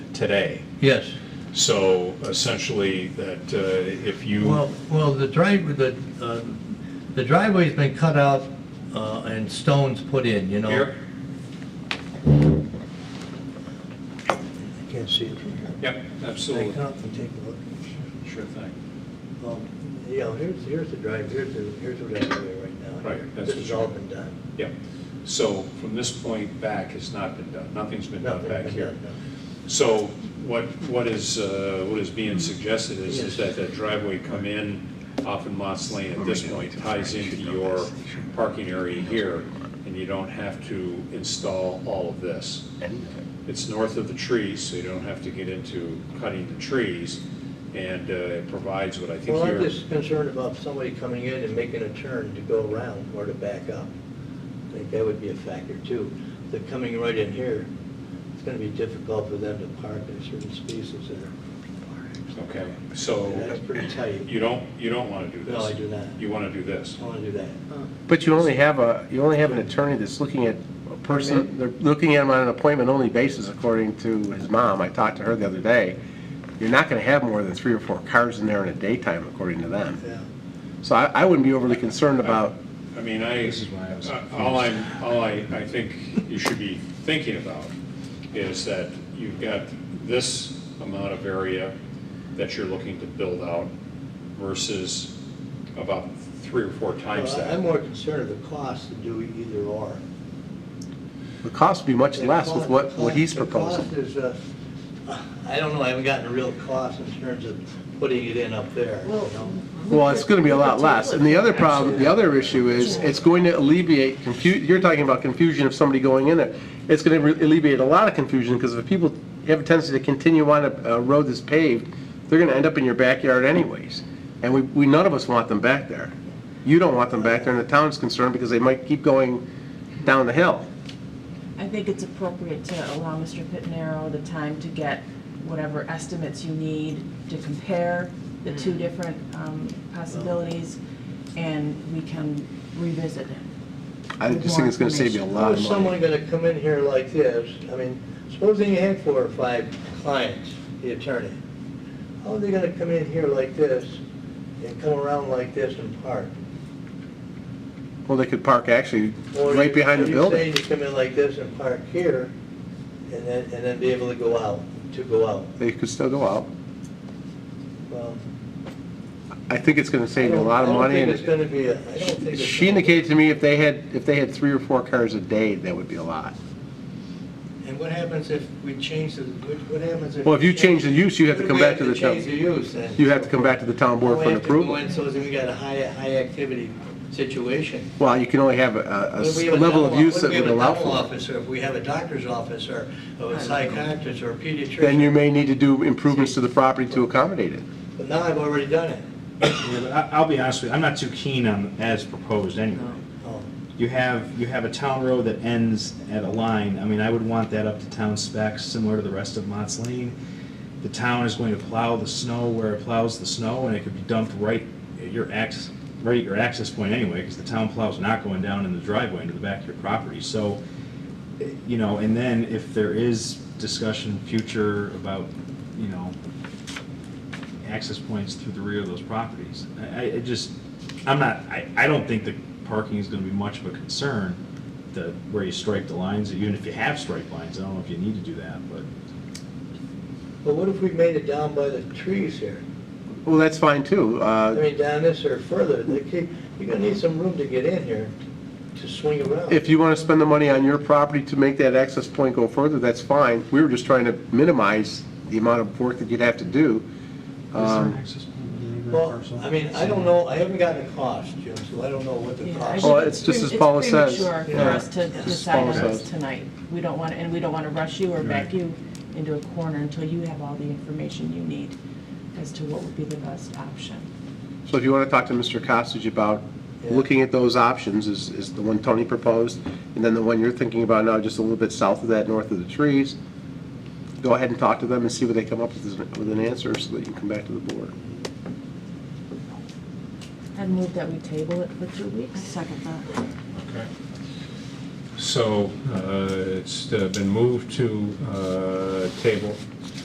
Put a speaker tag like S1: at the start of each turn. S1: today.
S2: Yes.
S1: So essentially, that uh, if you,
S2: Well, well, the drive, the, uh, the driveway's been cut out uh, and stones put in, you know?
S1: here,
S3: I can't see it from here.
S1: yep,
S3: Back
S1: absolutely,
S3: up and take a look.
S1: sure thing.
S3: Um, Yeah, here's, here's the drive, here's the, here's the driveway right now.
S1: Right, that's
S3: This
S1: what
S3: has
S1: you-
S3: all been done.
S1: Yep. So from this point back, it's not been done, nothing's been done
S3: Nothing's
S1: back
S3: been
S1: here.
S3: done, no.
S1: So what, what is, uh, what is being suggested is, is that that driveway come in off of Mott's Lane at this point ties into your parking area here, and you don't have to install all of this. It's north of the trees, so you don't have to get into cutting the trees, and uh, it provides what I think
S3: Well, I'm
S1: you're,
S3: just concerned about somebody coming in and making a turn to go around or to back up. I think that would be a factor too. If They're coming right in here, it's gonna be difficult for them to park in certain spaces there.
S1: okay,
S4: Oh.
S1: so
S3: That's pretty tight.
S1: you don't, you don't want to do this.
S3: No, I do not.
S1: You want to do this.
S3: I wanna do that.
S4: But you only have a, you only have an attorney that's looking at a person, they're looking at him on an appointment-only basis, according to his mom. I talked to her the other day. You're not going to have more than three or four cars in there in a daytime, according to them.
S3: Yeah.
S4: So I, I wouldn't be overly concerned about,
S1: I mean, I,
S5: is why I was
S1: uh, all I'm, all I, I think you should be thinking about is that you've got this amount of area that you're looking to build out versus about three or four times
S3: Well, I'm
S1: that.
S3: more concerned of the cost to do either or.
S4: the cost would be much
S3: The
S4: less with
S3: co-
S4: what, what he's
S3: the cost-
S4: proposing.
S3: The cost is, uh, I don't know, I haven't gotten a real cost in terms of putting it in up there, you know?
S4: Well, it's going to be a lot less. And the other problem, the other issue is, it's going to alleviate confu, you're talking about confusion of somebody going in it. It's going to alleviate a lot of confusion, because if people have a tendency to continue on a, a road that's paved, they're going to end up in your backyard anyways. And we, we, none of us want them back there. You don't want them back there, and the town's concerned, because they might keep going down the hill.
S6: I think it's appropriate to allow Mr. Pittenarrow the time to get whatever estimates you need to compare the two different um, possibilities, and we can revisit it.
S4: I just think it's going to save you a lot
S3: How is
S4: of money.
S3: someone gonna come in here like this? I mean, supposing you had four or five clients, the attorney, how are they gonna come in here like this and come around like this and park?
S4: Well, they could park actually
S3: Or
S4: right behind
S3: are
S4: the
S3: you
S4: building.
S3: saying you come in like this and park here, and then, and then be able to go out, to go out?
S4: They could still go out.
S3: Well,
S4: I think it's going to
S3: I
S4: save you a
S3: don't-
S4: lot of money.
S3: I
S4: and
S3: don't think it's gonna be, a- I don't think it's.
S4: She
S3: gonna-
S4: indicated to me if they had, if they had three or four cars a day, that would be a lot.
S3: And what happens if we change the, what what happens if?
S4: Well, if you change the use, you have
S3: What
S4: to
S3: if
S4: come
S3: we
S4: back to the
S3: Change the
S4: town.
S3: use then?
S4: You have to come back to the town board
S3: Well,
S4: for
S3: we
S4: an
S3: have to go
S4: approval.
S3: in So then we got a high, high activity situation.
S4: Well, you can only have a- a, a
S3: What if
S4: s-
S3: we have a
S4: level of
S3: dental-
S4: use
S3: what if
S4: that
S3: we have
S4: would
S3: a
S4: allow
S3: dental
S4: for it.
S3: office, or If we have a doctor's office or or a psychiatrist or a
S4: Then
S3: pediatrician,
S4: you may need to do improvements to the property to accommodate it.
S3: but now I've already done it.
S5: Yeah, but I- I'll be honest with you, I'm not too keen on as proposed anyway.
S3: Oh,
S5: You have, you have a town road that ends at a line, I mean, I would want that up to town specs, similar to the rest of Mott's Lane. The town is going to plow the snow where it plows the snow, and it could be dumped right at your access, right at your access point anyway, because the town plow's not going down in the driveway into the back of your property, so, eh, you know, and then if there is discussion future about, you know, access points through the rear of those properties. I, I it just, I'm not, I, I don't think the parking is gonna be much of a concern, the, where you strike the lines, even if you have strike lines, I don't know if you need to do that, but.
S3: But what if we made it down by the trees here?
S4: Well, that's fine too.
S3: I
S4: Uh,
S3: mean, down this or further, they keep, you're gonna need some room to get in here to swing around.
S4: If you want to spend the money on your property to make that access point go further, that's fine. We were just trying to minimize the amount of work that you'd have to do. Um,
S5: access point
S3: Well, I mean, I don't know, I haven't gotten a cost, Jim, so I don't know what the
S6: Yeah, I
S3: cost.
S4: Well,
S6: think
S4: it's just
S6: pre-
S4: as Paula says.
S6: It's premature for
S4: Yeah.
S6: us to
S4: As
S6: decide on
S4: Paula
S6: this
S4: says.
S6: tonight. We don't want, and we don't want to rush you or back
S5: Right.
S6: you into a corner until you have all the information you need as to what would be the best option.
S4: So if you want to talk to Mr. Costage about
S3: Yeah.
S4: looking at those options, is, is the one Tony proposed, and then the one you're thinking about now, just a little bit south of that, north of the trees, go ahead and talk to them and see what they come up with, as- with an answer, so that you can come back to the board.
S6: I'd move that we table it for two weeks. Second that.
S1: Okay. So uh, it's uh, been moved to uh, table